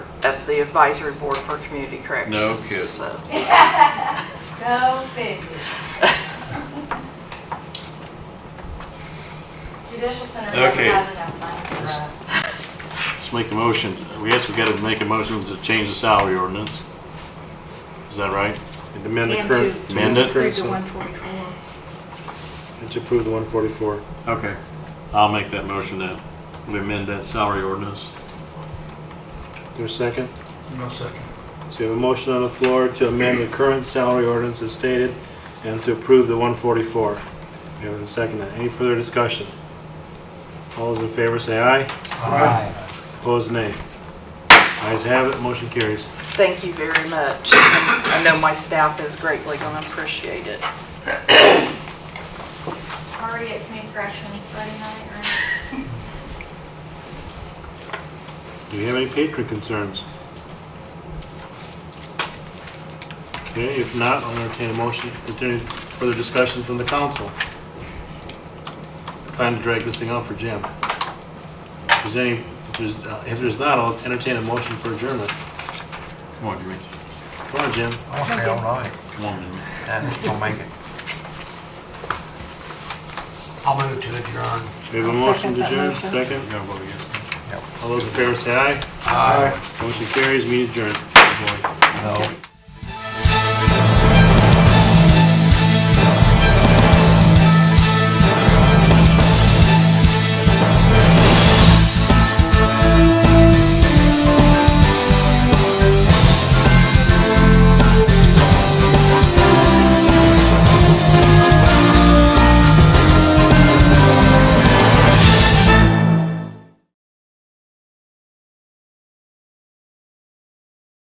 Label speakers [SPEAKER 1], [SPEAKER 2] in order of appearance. [SPEAKER 1] of the advisory board for community corrections.
[SPEAKER 2] No kidding.
[SPEAKER 1] So,
[SPEAKER 3] Go figure. Judicial Center never
[SPEAKER 2] Okay.
[SPEAKER 3] has enough money for us.
[SPEAKER 4] Let's make the motion. We guess we gotta make a motion to change the salary ordinance. Is that right?
[SPEAKER 5] And amend the
[SPEAKER 6] And
[SPEAKER 5] current.
[SPEAKER 6] to-
[SPEAKER 4] Amend it?
[SPEAKER 6] Approve the 144.
[SPEAKER 5] And to approve the 144.
[SPEAKER 4] Okay. I'll make that motion then. We amend that salary ordinance.
[SPEAKER 5] There's a second?
[SPEAKER 7] No second.
[SPEAKER 5] So we have a motion on the floor to amend the current salary ordinance as stated and to approve the 144. We have a second. Any further discussion? All those in favor say aye. Opposed, nay. Ayes have it, motion carries.
[SPEAKER 1] thank you very much. And I know my staff is greatly going to appreciate it.
[SPEAKER 3] Already at community corrections Friday night, or
[SPEAKER 5] Do we have any patron concerns? Okay, if not, I'll entertain a motion, continue further discussion from the council. Time to drag this thing out for Jim. If there's any, if there's, uh, if there's not, I'll entertain a motion for adjournment.
[SPEAKER 4] Come on, Jimmy.
[SPEAKER 5] Come on, Jim.
[SPEAKER 7] I want to stay all night,
[SPEAKER 4] Come on, Jimmy.
[SPEAKER 7] and I'll make it. I'll move to adjourn.
[SPEAKER 5] We have a
[SPEAKER 6] I'll
[SPEAKER 5] motion
[SPEAKER 6] second
[SPEAKER 5] to
[SPEAKER 6] that
[SPEAKER 5] adjourn,
[SPEAKER 6] motion.
[SPEAKER 5] second.
[SPEAKER 4] You gotta vote against
[SPEAKER 7] Yep.
[SPEAKER 5] All those in favor say aye.
[SPEAKER 7] Aye.
[SPEAKER 5] Motion carries, meeting adjourned.
[SPEAKER 4] it. Boy.
[SPEAKER 7] No.